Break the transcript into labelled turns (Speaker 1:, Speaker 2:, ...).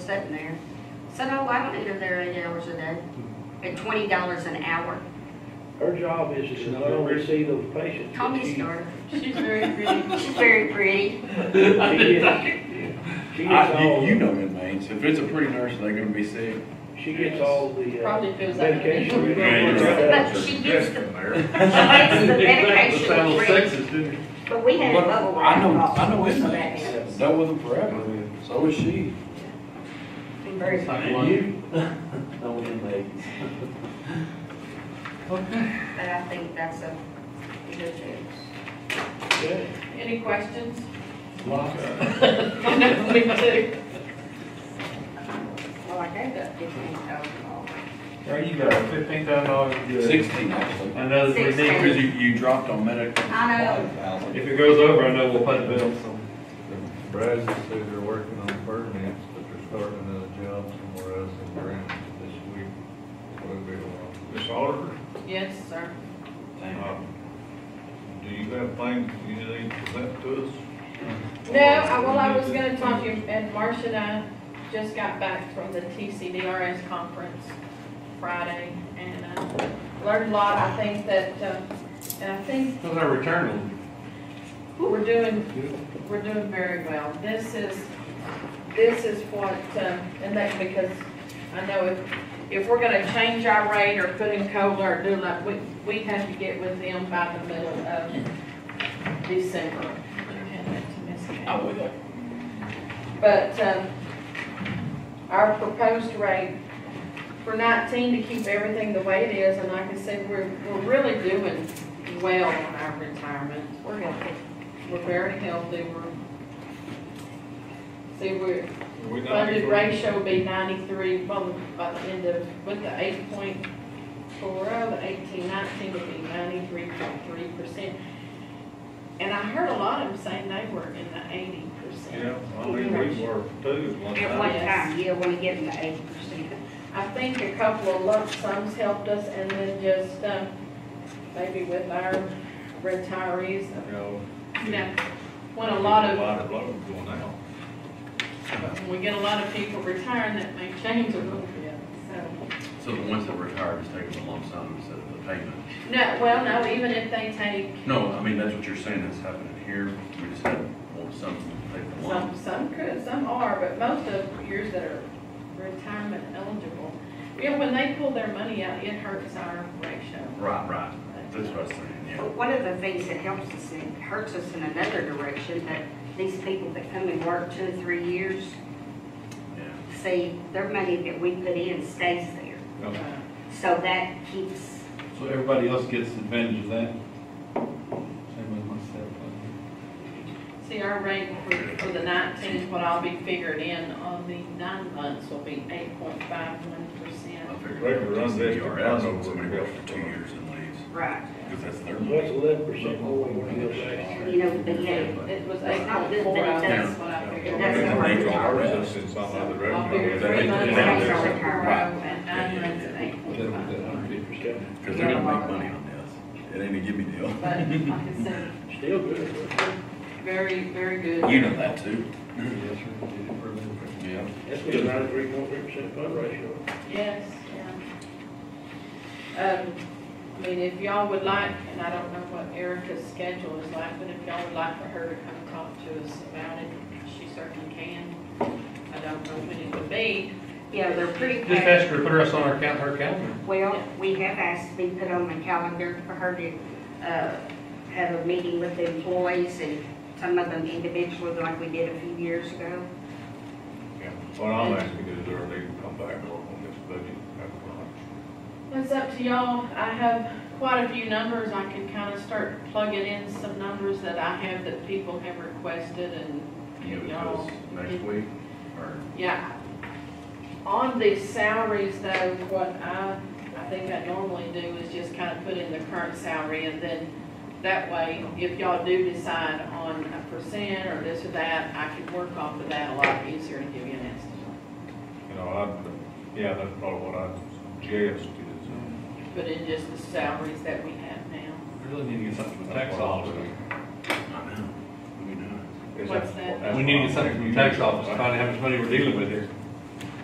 Speaker 1: sitting there, said, oh, I don't need them there eight hours a day, at twenty dollars an hour.
Speaker 2: Her job is to not only see those patients.
Speaker 1: Call me
Speaker 2: but she-
Speaker 1: Star.
Speaker 3: She's very pretty.
Speaker 1: She's very pretty.
Speaker 2: She gets she gets
Speaker 4: I,
Speaker 2: all,
Speaker 4: you- you know them names. If it's a pretty nurse, they're gonna be sick.
Speaker 2: she gets all the uh,
Speaker 3: Probably feels like.
Speaker 2: medication.
Speaker 3: that.
Speaker 1: But she gets the, she gets the medication free, but we had a
Speaker 4: But
Speaker 1: bubble
Speaker 4: I
Speaker 1: wrap
Speaker 4: know,
Speaker 1: problem.
Speaker 4: I know
Speaker 1: so that
Speaker 4: inmates
Speaker 1: helps.
Speaker 4: that with them forever. So is she.
Speaker 1: Been very funny.
Speaker 5: you? No, we didn't make it.
Speaker 1: But I think that's a good thing.
Speaker 2: Okay.
Speaker 3: Any questions?
Speaker 2: Monica,
Speaker 3: I know, me too.
Speaker 1: Well, I gave that fifteen thousand dollars.
Speaker 5: There you go, fifteen thousand dollars is good.
Speaker 4: Sixteen actually.
Speaker 5: I know that we need,
Speaker 4: Because
Speaker 5: to-
Speaker 4: you, you dropped on medical.
Speaker 1: I know.
Speaker 5: if it goes over, I know we'll pay the bill, so.
Speaker 6: Brazos, say they're working on permits, but they're starting another job somewhere else in Grant this week. Will be along. Ms. Oliver,
Speaker 3: Yes, sir.
Speaker 6: um, do you have things you need to present to us?
Speaker 3: No, I, well, I was gonna talk to you, and Marcia and I just got back from the TCDRS conference Friday, and, uh, learned a lot, I think that, uh, and I think
Speaker 5: How's our return?
Speaker 3: We're doing, we're doing very well. This is, this is what, um, and that, because I know if, if we're gonna change our rate or put in COLA or do like, we, we have to get with them by the middle of December. Hand that to Miss Kay.
Speaker 4: I would.
Speaker 3: But, um, our proposed rate for nineteen to keep everything the way it is, and like I said, we're, we're really doing well on our retirement.
Speaker 1: We're healthy.
Speaker 3: We're very healthy, we're, see, we're,
Speaker 6: We not-
Speaker 3: funded ratio will be ninety-three, well, by the end of, with the eight point four oh, the eighteen nineteen would be ninety-three point three percent. And I heard a lot of them saying they were in the eighty
Speaker 6: Yeah,
Speaker 3: percent.
Speaker 6: I mean, we were too one
Speaker 1: At one
Speaker 6: time.
Speaker 1: time, you want to get them to eighty percent.
Speaker 3: I think a couple of lump sums helped us, and then just, um, maybe with our retirees,
Speaker 6: You know,
Speaker 3: you know, when a lot of
Speaker 6: A lot of loans going out.
Speaker 3: But when we get a lot of people retiring, that may change a little bit, so.
Speaker 7: So the ones that retired is taking the lump sum instead of the payment?
Speaker 3: No, well, no, even if they take
Speaker 7: No, I mean, that's what you're saying is happening here, we just have lump sum, take the lump.
Speaker 3: some, some could, some are, but most of yours that are retirement eligible, you know, when they pull their money out, it hurts our ratio.
Speaker 7: Right, right, that's what I was saying, yeah.
Speaker 1: But One of the things that helps us, it hurts us in another direction, that these people that come and work two or three years,
Speaker 7: yeah.
Speaker 1: see, their money that we put in stays there.
Speaker 3: Uh,
Speaker 1: So that keeps,
Speaker 5: So everybody else gets advantage of that? Same with myself.
Speaker 3: See, our rate for, for the nineteen, what I'll be figured in on the nine months will be eight point five one
Speaker 7: I
Speaker 3: percent.
Speaker 7: figured
Speaker 6: They could run this-
Speaker 7: DRS, when somebody works for two years and leaves,
Speaker 1: right,
Speaker 7: because that's their money.
Speaker 2: That's eleven percent more than what it was last year.
Speaker 1: you know, but yeah,
Speaker 3: It was
Speaker 1: It's
Speaker 3: eight
Speaker 1: not good
Speaker 3: point
Speaker 1: that
Speaker 3: four,
Speaker 1: it
Speaker 3: that's
Speaker 1: does-
Speaker 3: what I
Speaker 6: Yeah.
Speaker 3: figured.
Speaker 1: That's
Speaker 6: They
Speaker 1: not
Speaker 6: make
Speaker 1: right.
Speaker 6: ours in some other
Speaker 3: I'll
Speaker 6: revenue.
Speaker 3: figure three months
Speaker 7: Yeah.
Speaker 3: out,
Speaker 7: Yeah.
Speaker 3: so and nine months at eight point five.
Speaker 2: Okay.
Speaker 7: Because they're gonna make money on this, it ain't a gimme deal.
Speaker 3: But like I said,
Speaker 2: Still good.
Speaker 3: very, very good.
Speaker 7: You know that too. Yeah.
Speaker 2: That's been ninety-three point three percent fund ratio.
Speaker 3: Yes, yeah. Um, I mean, if y'all would like, and I don't know what Erica's schedule is like, but if y'all would like for her to come talk to us about it, she certainly can. I don't know when it would be.
Speaker 1: yeah, they're pretty.
Speaker 5: Just ask her, to put us on our count, her calendar.
Speaker 1: Well, we have asked to be put on the calendar for her to, uh, have a meeting with the employees and some of them individually, like we did a few years ago.
Speaker 6: Yeah. What I'm asking is, are they gonna come back and work on this budget? That's what I'm-
Speaker 3: That's up to y'all. I have quite a few numbers. I can kind of start plugging in some numbers that I have that people have requested and
Speaker 7: You know,
Speaker 3: y'all.
Speaker 7: because next week, or?
Speaker 3: Yeah. On the salaries though, what I, I think I normally do is just kind of put in the current salary and then that way, if y'all do decide on a percent or this or that, I can work off of that a lot easier and give you an estimate.
Speaker 6: You know, I, yeah, that's probably what I suggest is, uh,
Speaker 3: Put in just the salaries that we have now.
Speaker 5: We Really need to get something from the tax
Speaker 6: That's what I'll
Speaker 5: office.
Speaker 7: I know, we know.
Speaker 6: is
Speaker 3: What's
Speaker 6: that-
Speaker 3: that?
Speaker 6: that's
Speaker 5: We need to
Speaker 6: what
Speaker 5: get
Speaker 6: I'm
Speaker 5: something from the
Speaker 6: thinking.
Speaker 5: tax office, find out how much money we're dealing with here.